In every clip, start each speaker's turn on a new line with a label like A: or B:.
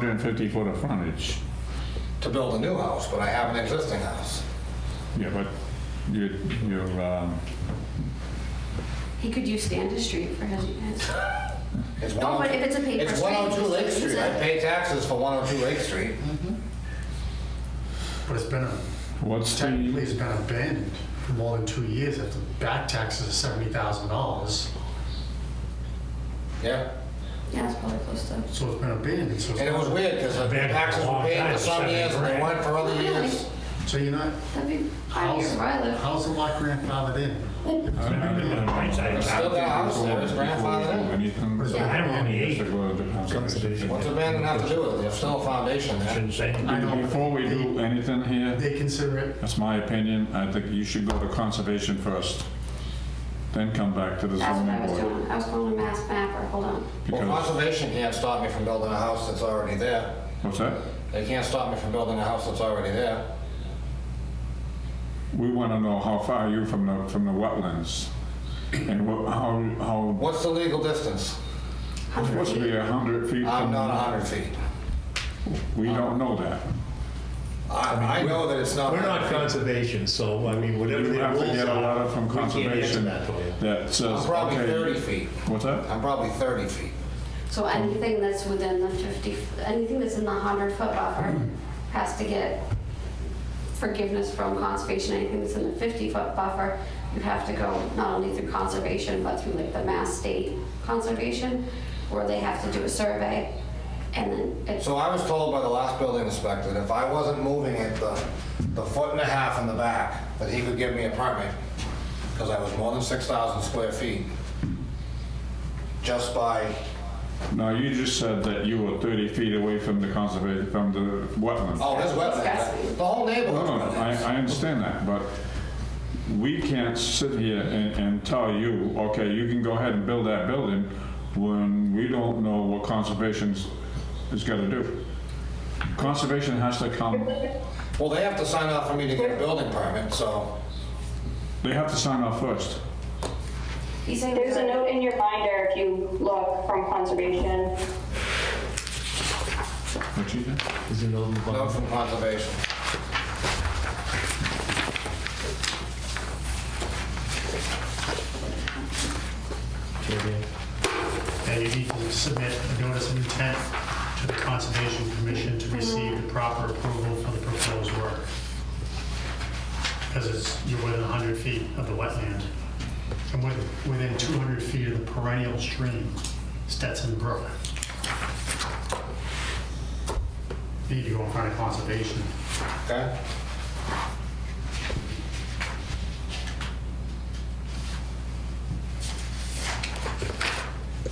A: 150 foot of frontage.
B: to build a new house, but I have an existing house.
A: Yeah, but your, your, um,
C: He could use Standish Street for his, his-
B: It's oh
C: No, Oh, but if it's a paper
B: It's
C: street,
B: 102 Lake
C: it's-
B: Street. I pay taxes for 102 Lake Street.
D: But it's been,
A: what's
D: technically,
A: the,
D: it's been abandoned for more than two years after back taxes of seventy thousand dollars.
B: Yeah.
C: yeah, it's probably close to.
D: So it's been abandoned, so
B: And it was
D: it's,
B: weird because the
E: Abandoned
B: taxes
E: for a
B: were
E: long
B: paid for
E: time,
B: some
E: seventy
B: years and they
E: grand.
B: went for other years.
D: so you're not,
C: That'd be five years
D: how's,
C: where I live.
D: how's the lot grandfathered in?
B: Still got a house there, it's grandfathered in.
A: anything?
C: Yeah.
E: I don't own the eight.
B: What's abandoned have to do with it? There's still a foundation there.
E: Shouldn't say.
D: I know.
A: Before we do anything here,
D: They consider it,
A: that's my opinion, I think you should go to conservation first, then come back to the
C: That's what
A: zoning
C: I was
A: board.
C: doing. I was going to Mass Mapper, hold on.
B: Well,
A: Because,
B: conservation can't stop me from building a house that's already there.
A: what's that?
B: They can't stop me from building a house that's already there.
A: We want to know how far are you from the, from the wetlands? And wha- how, how,
B: What's the legal distance?
A: it's supposed to be 100 feet
B: I'm
A: from,
B: not 100 feet.
A: we don't know that.
B: I I know that it's not.
E: We're not
B: 100 feet.
E: conservation, so I mean, whatever
A: You
E: the
A: have to
E: rules
A: get a
E: are,
A: letter from
E: we can't answer
A: conservation
E: that for you.
A: that says,
B: I'm probably 30
A: okay.
B: feet.
A: What's that?
B: I'm probably 30 feet.
C: So anything that's within the 50, anything that's in the 100-foot buffer has to get forgiveness from conservation. Anything that's in the 50-foot buffer, you have to go not only through conservation, but through like the Mass State Conservation, where they have to do a survey, and then it's,
B: So I was told by the last building inspector that if I wasn't moving it the, the foot and a half in the back, that he could give me a permit, because I was more than 6,000 square feet, just by,
A: No, you just said that you were 30 feet away from the conservation, from the wetland.
B: oh, this wetland, the whole
A: No, Oh, no,
B: neighborhood.
A: I, I understand that, but we can't sit here and, and tell you, okay, you can go ahead and build that building when we don't know what conservation's is gonna do. Conservation has to come,
B: Well, they have to sign off for me to get a building permit, so,
A: they have to sign off first.
C: he's saying.
F: There's a note in your binder if you look from conservation.
A: What you think?
E: Is it on the
B: note
E: bottom?
B: from conservation.
D: and you need to submit a notice of intent to the Conservation Commission to receive the proper approval for the proposed work. Because it's, you're within 100 feet of the wetland, and with- within 200 feet of the perennial stream, Stetson Brook. You Need to go in front of Conservation.
B: Okay?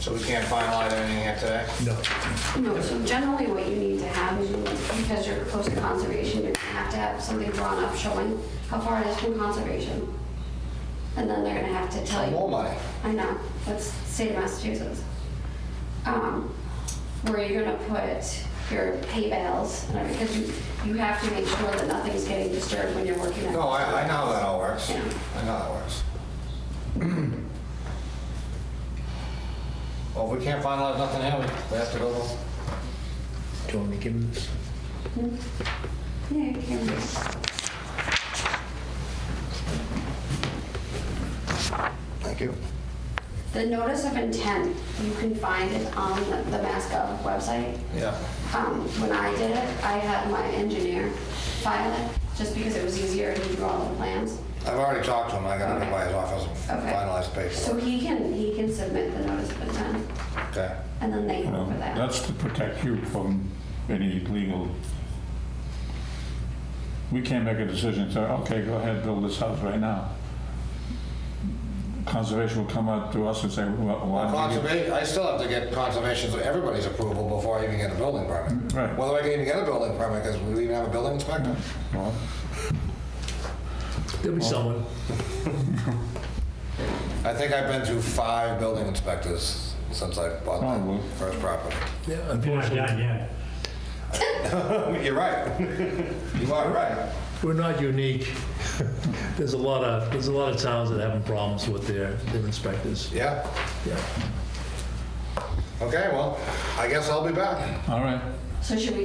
B: So we can't finalize anything here today?
E: No.
C: No, so generally what you need to have is, you- because you're close to conservation, you're gonna have to have something drawn up showing how far it is from conservation. And then they're gonna have to tell
B: More
C: you,
B: money.
C: I know, that's the state of Massachusetts. Um, Where you're gonna put your hay bales, and everything, because you, you have to make sure that nothing's getting disturbed when you're working on.
B: No, I, I know how that all works. I
C: Yeah.
B: know how it works. Well, if we can't finalize nothing here, we- we have to go.
E: Do you want me to give him this?
C: Yeah, you can.
B: Thank you.
C: The notice of intent, you can find it on the the MassGov website.
B: Yeah.
C: Um, When I did it, I had my engineer file it, just because it was easier, and he drew all the plans.
B: I've already talked to him. I got it by his office and
C: Okay.
B: finalized
C: So
B: paperwork.
C: he can, he can submit the notice of intent,
B: Okay.
C: and then they
A: You
C: go
A: know,
C: over that.
A: That's to protect you from any legal. We can't make a decision, say, okay, go ahead, build this house right now. Conservation will come up to us and say, well, why? did you-"
B: Conservation, I still have to get conservation's, everybody's approval before I even get a building permit.
A: Right.
B: Whether I can even get a building permit, because we even have a building inspector.
A: Well,
E: There'll be someone.
B: I think I've been through five building inspectors since I bought
A: Probably.
B: my first property.
E: Yeah, unfortunately. We're not
B: You're right. You are right.
E: unique. There's a lot of, there's a lot of towns that having problems with their, their inspectors.
B: Yeah.
E: Yeah.
B: Okay, well, I guess I'll be back.
A: All right,
C: So should we